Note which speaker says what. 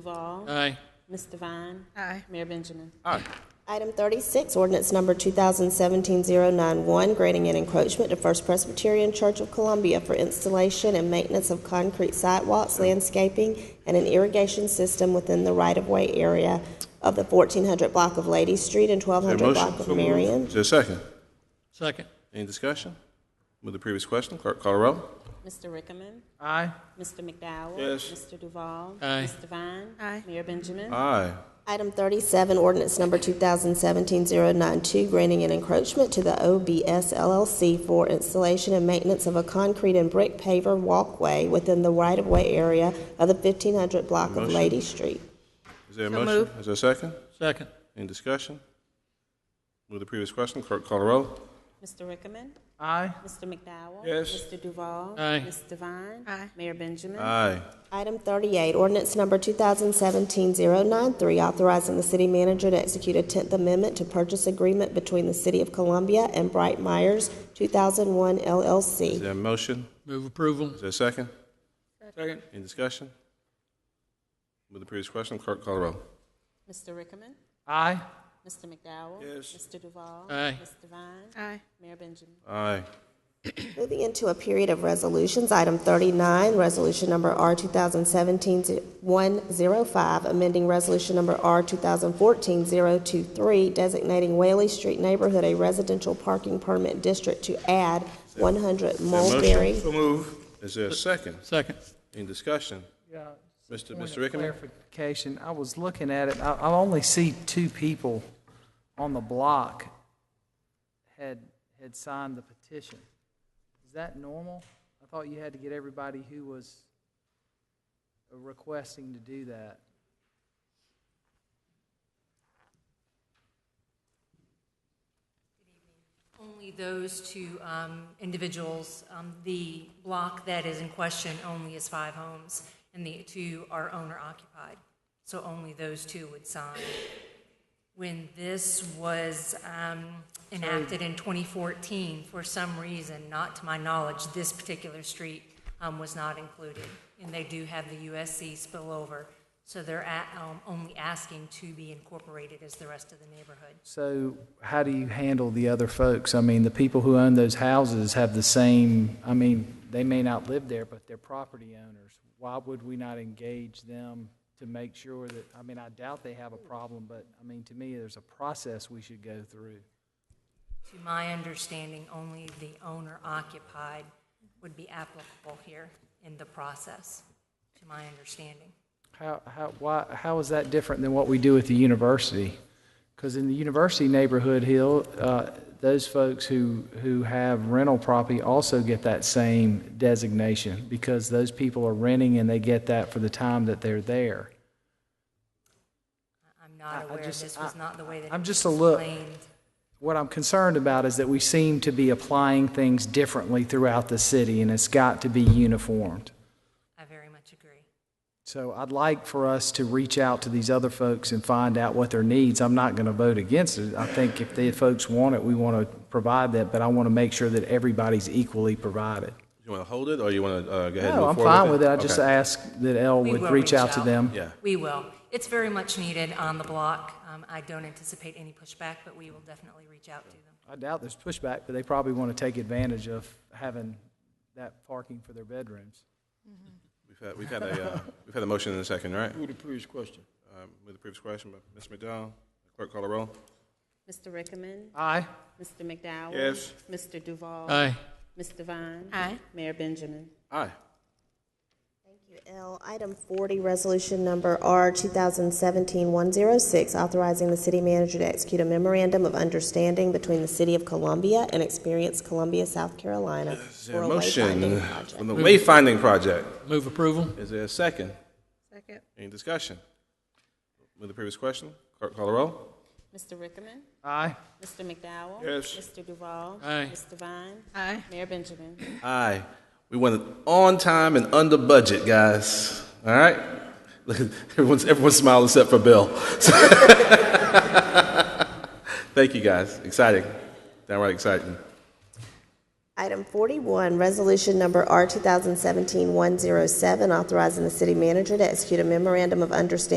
Speaker 1: Duval.
Speaker 2: Aye.
Speaker 1: Ms. Devine.
Speaker 3: Aye.
Speaker 1: Mayor Benjamin.
Speaker 2: Aye.
Speaker 4: Item 36, ordinance number 2017-091, granting an encroachment to First Presbyterian Church of Columbia for installation and maintenance of concrete sidewalks, landscaping, and an irrigation system within the right-of-way area of the 1400 block of Lady Street and
Speaker 5: Is
Speaker 4: 1200
Speaker 5: there a
Speaker 4: block
Speaker 5: motion?
Speaker 4: of Marion.
Speaker 5: Is there a second?
Speaker 2: Second.
Speaker 5: Any discussion? With the previous question, clerk call the roll.
Speaker 1: Mr. Rickaman.
Speaker 2: Aye.
Speaker 1: Mr. McDowell.
Speaker 5: Yes.
Speaker 1: Mr. Duval.
Speaker 2: Aye.
Speaker 1: Ms. Devine.
Speaker 3: Aye.
Speaker 1: Mayor Benjamin.
Speaker 5: Aye.
Speaker 4: Item 37, ordinance number 2017-092, granting an encroachment to the OBS LLC for installation and maintenance of a concrete and brick paver walkway within the right-of-way area of the 1500 block of
Speaker 5: Motion.
Speaker 4: Lady Street.
Speaker 5: Is there a
Speaker 3: So
Speaker 5: motion?
Speaker 3: moved.
Speaker 5: Is there a second?
Speaker 2: Second.
Speaker 5: Any discussion? With the previous question, clerk call the roll.
Speaker 1: Mr. Rickaman.
Speaker 2: Aye.
Speaker 1: Mr. McDowell.
Speaker 5: Yes.
Speaker 1: Mr. Duval.
Speaker 2: Aye.
Speaker 1: Ms. Devine.
Speaker 3: Aye.
Speaker 1: Mayor Benjamin.
Speaker 5: Aye.
Speaker 4: Item 38, ordinance number 2017-093, authorizing the city manager to execute a 10th amendment to purchase agreement between the City of Columbia and Bright Myers 2001
Speaker 5: Is
Speaker 4: LLC.
Speaker 5: there a motion?
Speaker 2: Move approval.
Speaker 5: Is there a second?
Speaker 2: Second.
Speaker 5: Any discussion? With the previous question, clerk call the roll.
Speaker 1: Mr. Rickaman.
Speaker 2: Aye.
Speaker 1: Mr. McDowell.
Speaker 5: Yes.
Speaker 1: Mr. Duval.
Speaker 2: Aye.
Speaker 1: Ms. Devine.
Speaker 3: Aye.
Speaker 1: Mayor Benjamin.
Speaker 5: Aye.
Speaker 4: Moving into a period of resolutions, item 39, resolution number R 2017-105, amending resolution number R 2014-023, designating Whaley Street neighborhood a residential parking permit district to add 100
Speaker 5: Is there a motion?
Speaker 4: Mulberry.
Speaker 5: move. Is there a second?
Speaker 2: Second.
Speaker 5: Any discussion?
Speaker 6: Yeah,
Speaker 5: Mr.
Speaker 6: point
Speaker 5: Mr.
Speaker 6: of
Speaker 5: Rickaman?
Speaker 6: Clarification, I was looking at it, I, I only see two people on the block had, had signed the petition. Is that normal? I thought you had to get everybody who was requesting to do that.
Speaker 7: Only those two um, individuals. Um, The block that is in question only is five homes, and the two are owner-occupied. So only those two would sign. When this was um, enacted in 2014, for some reason, not to my knowledge, this particular street um, was not included. And they do have the USC spillover, so they're at- um, only asking to be incorporated as the rest of the neighborhood.
Speaker 6: So how do you handle the other folks? I mean, the people who own those houses have the same, I mean, they may not live there, but they're property owners. Why would we not engage them to make sure that, I mean, I doubt they have a problem, but, I mean, to me, there's a process we should go through.
Speaker 7: To my understanding, only the owner occupied would be applicable here in the process, to my understanding.
Speaker 6: How, how, why, how is that different than what we do at the university? Because in the university neighborhood, Hill, uh, those folks who, who have rental property also get that same designation because those people are renting and they get that for the time that they're there.
Speaker 7: I- I'm
Speaker 6: I- I
Speaker 7: not aware,
Speaker 6: just-
Speaker 7: this was
Speaker 6: I-
Speaker 7: not the way that
Speaker 6: I'm
Speaker 7: it
Speaker 6: just a
Speaker 7: was
Speaker 6: little-
Speaker 7: explained.
Speaker 6: What I'm concerned about is that we seem to be applying things differently throughout the city and it's got to be uniformed.
Speaker 7: I very much agree.
Speaker 6: So I'd like for us to reach out to these other folks and find out what their needs. I'm not going to vote against it. I think if the folks want it, we want to provide that, but I want to make sure that everybody's equally provided.
Speaker 5: You want to hold it, or you want to go ahead and move
Speaker 6: No,
Speaker 5: forward
Speaker 6: I'm fine with it. I
Speaker 5: Okay.
Speaker 6: just ask that Elle
Speaker 7: We
Speaker 6: would
Speaker 7: will
Speaker 6: reach out to them.
Speaker 5: Yeah.
Speaker 7: We will. It's very much needed on the block. Um, I don't anticipate any pushback, but we will definitely reach out to them.
Speaker 6: I doubt there's pushback, but they probably want to take advantage of having that parking for their bedrooms.
Speaker 5: We've had, we've had a, uh, we've had a motion in a second, right?
Speaker 8: Move the previous question.
Speaker 5: Um, With the previous question, but Ms. McDowell, clerk call the roll.
Speaker 1: Mr. Rickaman.
Speaker 6: Aye.
Speaker 1: Mr. McDowell.
Speaker 5: Yes.
Speaker 1: Mr. Duval.
Speaker 2: Aye.
Speaker 1: Ms. Devine.
Speaker 3: Aye.
Speaker 1: Mayor Benjamin.
Speaker 5: Aye.
Speaker 4: L, item 40, resolution number R 2017-106, authorizing the city manager to execute a memorandum of understanding between the City of Columbia and Experience Columbia, South Carolina
Speaker 5: Is there
Speaker 4: for
Speaker 5: a
Speaker 4: a
Speaker 5: motion
Speaker 4: wayfinding
Speaker 5: for
Speaker 4: project.
Speaker 5: the wayfinding project?
Speaker 2: Move approval.
Speaker 5: Is there a second?
Speaker 3: Second.
Speaker 5: Any discussion? With the previous question, clerk call the roll.
Speaker 1: Mr. Rickaman.
Speaker 6: Aye.
Speaker 1: Mr. McDowell.
Speaker 5: Yes.
Speaker 1: Mr. Duval.
Speaker 2: Aye.
Speaker 1: Ms. Devine.
Speaker 3: Aye.
Speaker 1: Mayor Benjamin.
Speaker 5: Aye. We went on time and under budget, guys. All right? Look, everyone's, everyone's smiling except for Bill. Thank you, guys. Exciting. Downright exciting.
Speaker 4: Item 41, Resolution Number R 2017-107, authorizing the city manager to execute a memorandum of understanding